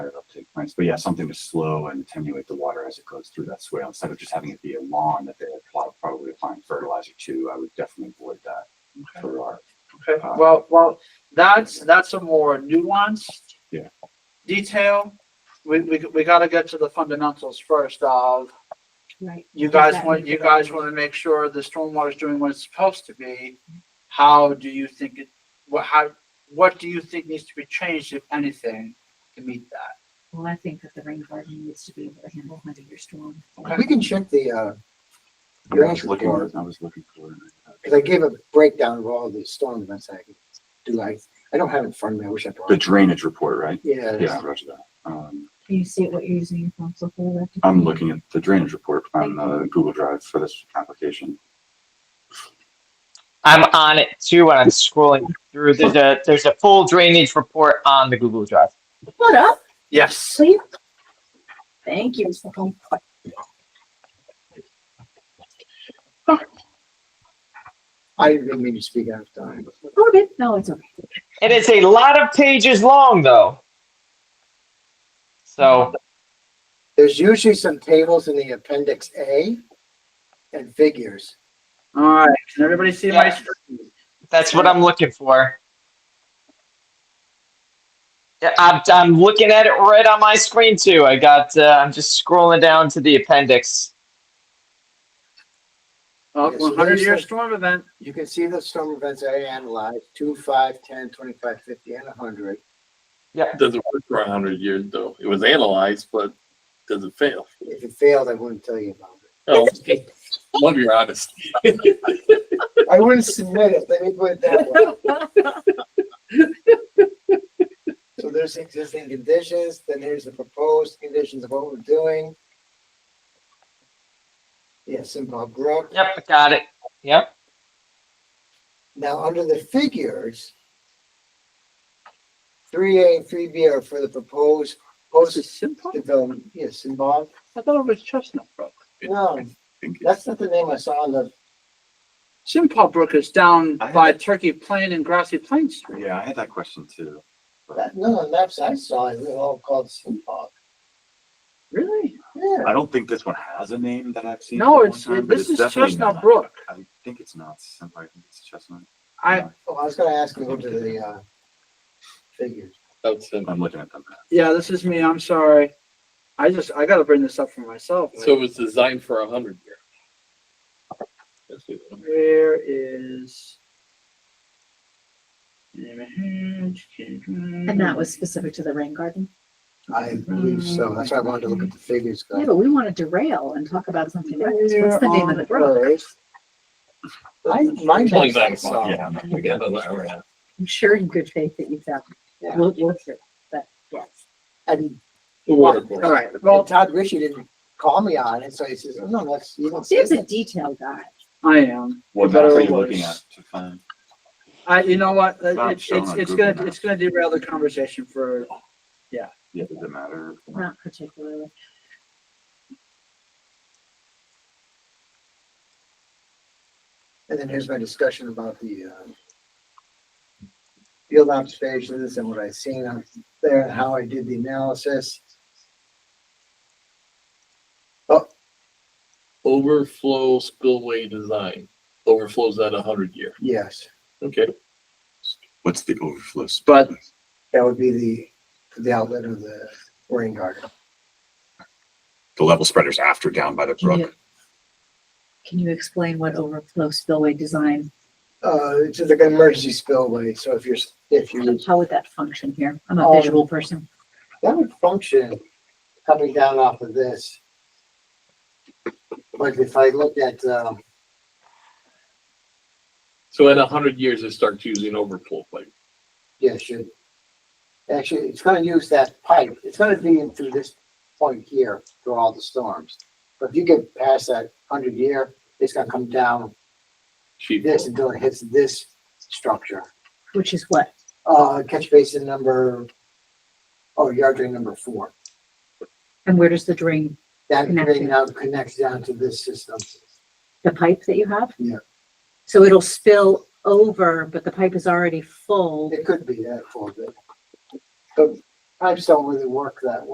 higher uptake plants. But yeah, something to slow and attenuate the water as it goes through that swale. Instead of just having it be a lawn that they're pl- probably applying fertilizer to, I would definitely avoid that for our. Okay, well, well, that's, that's a more nuanced. Yeah. Detail. We, we, we gotta get to the fundamentals first of, Right. you Does that guys want, need you to go guys in? wanna make sure the stormwater is doing what it's supposed to be. How do you think it, what, how, what do you think needs to be changed, if anything, to meet that? Well, I think that the rain garden needs to be able to handle hundred year storm. Okay, We can check the, uh, I was Drainage looking, report. I was looking for. uh, cause I gave a breakdown of all the storm events I could do. I, I don't have it in front of me. I wish I brought. The it. drainage report, right? Yeah. Yeah, roger that. Um, Can you see what you're using your phone so for? I'm looking at the drainage report on the Google Drive for this application. I'm on it too when I'm scrolling through. There's a there's a full drainage report on the Google Drive. What up, yes. sleep? Thank you. Oh, Mr. Home. I didn't mean to speak out of time. Oh, good. No, it's okay. It is a lot of pages long though. So There's usually some tables in the appendix A and figures. All right, can everybody see my Yeah. screen? that's what I'm looking for. Yeah, I'm I'm looking at it right on my screen too. I got uh, I'm just scrolling down to the appendix. Oh, Yes, one Oh, hundred year there's a- storm event. You can see the storm events I analyzed, two, five, ten, twenty-five, fifty, and a hundred. Doesn't work for a hundred years though. It was analyzed, but doesn't fail. If it failed, I wouldn't tell you about it. Oh, love your honesty. I wouldn't submit it, let me put it that way. So there's existing conditions, then here's the proposed conditions of what we're doing. Yes, Simple Brook. Yep, got it. Yep. Now, under the figures, three A and three B are for the proposed Is it post Simplot? development, yes, involved. I thought it was Chestnut Brook. No, Thank you. that's not the name I saw on the, Simplot Brook is down I by Turkey Plain and Grassy Plain Street. Yeah, I had that question too. that, none of the maps I saw, it was all called Simple. Really? Yeah, I don't think this one has a name that I've seen. No, for a it's, long time, but this is it's definitely Chestnut not- Brook. I think it's not Simplot, I think it's Chestnut. I, oh, I was gonna ask you to go to the, uh, figures. That's it. I'm looking at them. yeah, this is me, I'm sorry. I just, I gotta bring this up for myself. So it was designed for a hundred year. That's it. Where is? And And that was specific to the rain garden? I believe so, that's why I wanted to look at the figures, 'cause Yeah, but we want to derail and talk about something. else. What's the name of the brook? I, my Pulling maps I back. saw. Yeah, I'm not- We got an hour and a half. I'm sure in good faith that you found. Yeah. it. We'll, we'll hear, but yes. And The water course. All right, Well, well, Todd Rishi didn't call me on it, so he says, "Oh, no, that's, you don't see Steve's a it. detail guy. I am. What Better map are or you looking worse. at to find? I, you know what, Not it's, shown it's, on it's Google gonna, Maps. it's gonna derail the conversation for, Yeah, does it matter? Not particularly. And then here's my discussion about the, uh, field observations and what I seen out there and how I did the analysis. Overflow spillway design overflows at a hundred year. Yes, Okay. What's the overflow? sp- but that would be the, the outlet of the rain garden. the level spreaders after down by the Can brook. you, can you explain what overflow spillway design, Uh, it's just like an emergency spillway, so if you're, s- if you, how would that function here? I'm Um, a visual person. that would function coming down off of this. Like if I look at, um, So in a hundred years, they start using overflow pipe. Yeah, it should. Actually, it's gonna use that pipe. It's gonna be in through this point here through all the storms. But if you get past that hundred year, it's gonna come down Sheet this flow. until it hits this structure. Which is what? Uh, catch basin number, oh, yard drain number four. And where does the drain, That drain Connected. now connects down to this system. the pipe that you have? Yeah. So it'll spill over, but the pipe is already full. It could be that for a bit. But pipes don't really work that way.